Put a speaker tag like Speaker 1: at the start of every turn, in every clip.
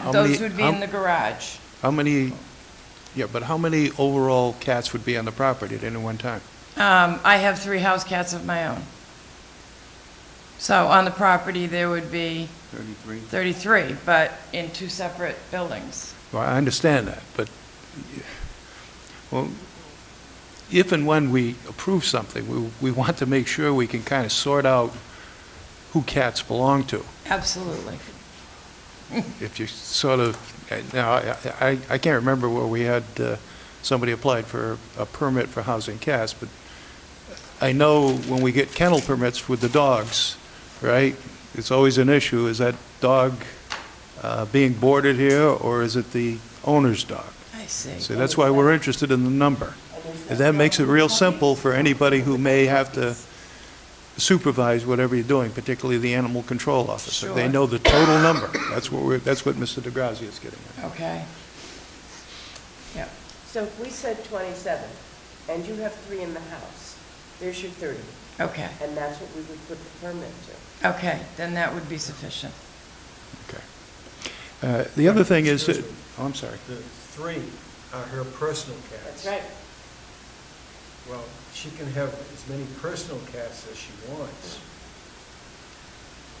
Speaker 1: How
Speaker 2: Those
Speaker 1: many-
Speaker 2: would be
Speaker 1: how-
Speaker 2: in the garage.
Speaker 1: How many, yeah, but how many overall cats would be on the property at any one time?
Speaker 2: Um, I have three house cats of my own. So on the property, there would be
Speaker 3: 33.
Speaker 2: 33, but in two separate buildings.
Speaker 1: Well, I understand that, but, well, if and when we approve something, we, we want to make sure we can kind of sort out who cats belong to.
Speaker 2: Absolutely.
Speaker 1: If you sort of, uh, now, I, I, I can't remember where we had, uh, somebody applied for a permit for housing cats, but I know when we get kennel permits with the dogs, right, it's always an issue, is that dog, uh, being boarded here, or is it the owner's dog?
Speaker 2: I see.
Speaker 1: So that's why we're interested in the number. And that makes it real simple for anybody who may have to supervise whatever you're doing, particularly the animal control officer. They
Speaker 2: Sure.
Speaker 1: know the total number. That's what we're, that's what Mr. DeGrazia is getting at.
Speaker 2: Okay. Yep.
Speaker 4: So if we said 27, and you have three in the house, there's your 30,
Speaker 2: Okay,
Speaker 4: and that's what we would put the permit to.
Speaker 2: okay, then that would be sufficient.
Speaker 1: Okay. Uh, The other thing is, that- oh, I'm sorry.
Speaker 5: The three are her personal cats.
Speaker 4: That's right.
Speaker 5: Well, she can have as many personal cats as she wants.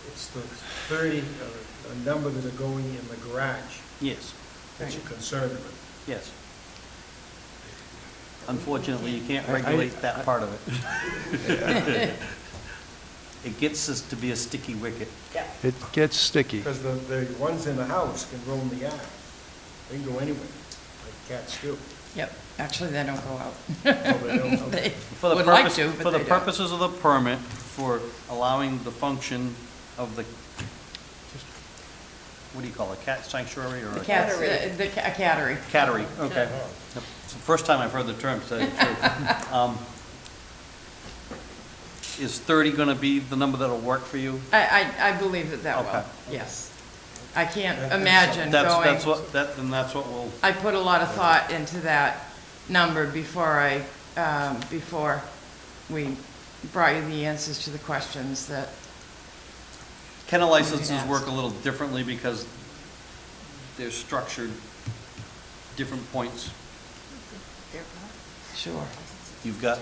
Speaker 5: It's the 30, uh, a number that are going in the garage
Speaker 3: Yes,
Speaker 5: that you're concerned with.
Speaker 3: yes. Unfortunately, you can't
Speaker 1: I- I-
Speaker 3: regulate that part of it. It gets us to be a sticky wicket.
Speaker 4: Yeah.
Speaker 1: It gets sticky.
Speaker 5: Because the, the ones in the house can roam the yard. They can go anywhere, like cats do.
Speaker 2: Yep, actually, they don't go out.
Speaker 5: Oh, they don't, okay.
Speaker 2: They
Speaker 3: For the
Speaker 2: would like
Speaker 3: purpose-
Speaker 2: to, but
Speaker 3: For the
Speaker 2: they don't.
Speaker 3: purposes of the permit, for allowing the function of the, what do you call it, cat sanctuary or?
Speaker 2: The
Speaker 3: a-
Speaker 2: cats,
Speaker 4: Cattery.
Speaker 2: uh, the ca- cattery.
Speaker 3: Cattery, okay. Yep. It's the first time I've heard the term, to tell you the truth. Um, Is 30 going to be the number that'll work for you?
Speaker 2: I, I, I believe that that
Speaker 3: Okay.
Speaker 2: will, yes. I can't
Speaker 5: That-
Speaker 2: imagine
Speaker 3: That's, that's
Speaker 2: going,
Speaker 3: what, that, then that's what we'll,
Speaker 2: I put a lot of thought into that number before I, um, before we brought you the answers to the questions that,
Speaker 3: kennel licenses
Speaker 2: ask.
Speaker 3: work a little differently because they're structured different points.
Speaker 2: sure.
Speaker 3: You've got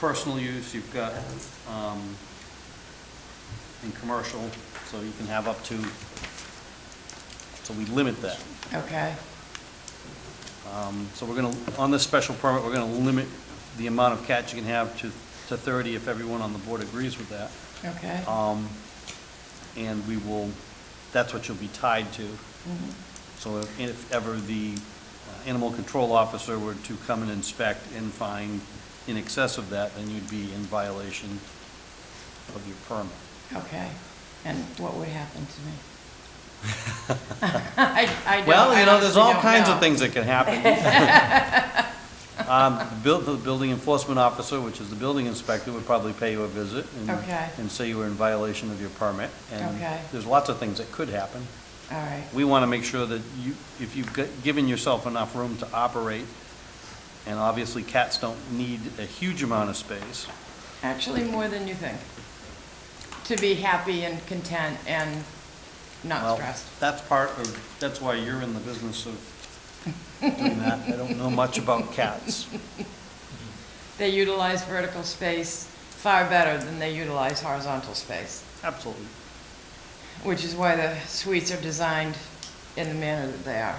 Speaker 3: personal use, you've got, um, and commercial, so you can have up to, so we limit that.
Speaker 2: Okay,
Speaker 3: Um, So we're going to, on this special permit, we're going to limit the amount of cats you can have to, to 30 if everyone on the board agrees with that.
Speaker 2: okay.
Speaker 3: Um, And we will, that's what you'll be tied to.
Speaker 2: Mhm.
Speaker 3: So if- if ever the uh, animal control officer were to come and inspect and find in excess of that, then you'd be in violation of your permit.
Speaker 2: Okay, and what would happen to me? I, I don't,
Speaker 3: Well,
Speaker 2: I
Speaker 3: you know, there's
Speaker 2: honestly
Speaker 3: all
Speaker 2: don't
Speaker 3: kinds of
Speaker 2: know.
Speaker 3: things that can happen. Um, the buil- The building enforcement officer, which is the building inspector, would probably pay you a visit and-
Speaker 2: Okay.
Speaker 3: and say you were in violation of your permit. And
Speaker 2: Okay.
Speaker 3: there's lots of things that could happen.
Speaker 2: All right,
Speaker 3: We want to make sure that you, if you've g- given yourself enough room to operate, and obviously cats don't need a huge amount of space.
Speaker 2: actually, more than you think. To be happy and content and not
Speaker 3: Well,
Speaker 2: stressed.
Speaker 3: That's part of, that's why you're in the business of doing that. I don't know much about cats.
Speaker 2: They utilize vertical space far better than they utilize horizontal space,
Speaker 3: Absolutely.
Speaker 2: which is why the suites are designed in the manner that they are.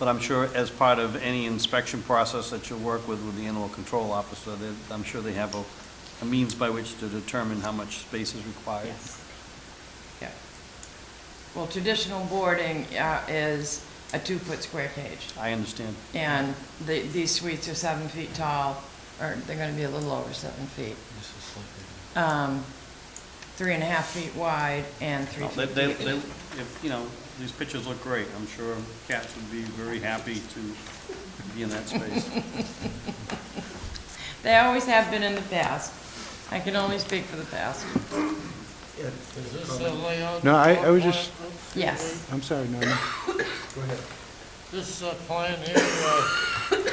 Speaker 3: But I'm sure as part of any inspection process that you'll work with, with the animal control officer, that I'm sure they have a, a means by which to determine how much space is required.
Speaker 2: Yeah. Well, traditional boarding uh, is a two-foot square cage.
Speaker 3: I understand.
Speaker 2: And the, these suites are seven feet tall, or they're gonna be a little over seven feet. Um, three and a half feet wide and three
Speaker 3: No, They,
Speaker 2: feet
Speaker 3: they,
Speaker 2: deep.
Speaker 3: they- if, you know, these pictures look great. I'm sure cats would be very happy to be in that space.
Speaker 2: They always have been in the past. I can only speak for the past.
Speaker 5: Yeah, there's a
Speaker 6: Is this a
Speaker 5: comment.
Speaker 6: layout?
Speaker 1: No, I-
Speaker 6: of
Speaker 1: I was
Speaker 6: plan
Speaker 1: just-
Speaker 6: group?
Speaker 2: Yes.
Speaker 1: I'm sorry, Norman.
Speaker 5: Go ahead.
Speaker 6: This uh, plan here uh,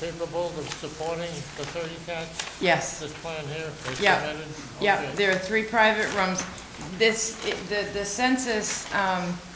Speaker 6: capable of supporting the 30 cats?
Speaker 2: Yes,
Speaker 6: This plan here is
Speaker 2: Yeah.
Speaker 6: submitted?
Speaker 2: yeah,
Speaker 6: Okay.
Speaker 2: there are three private rooms. This, the, the census, um,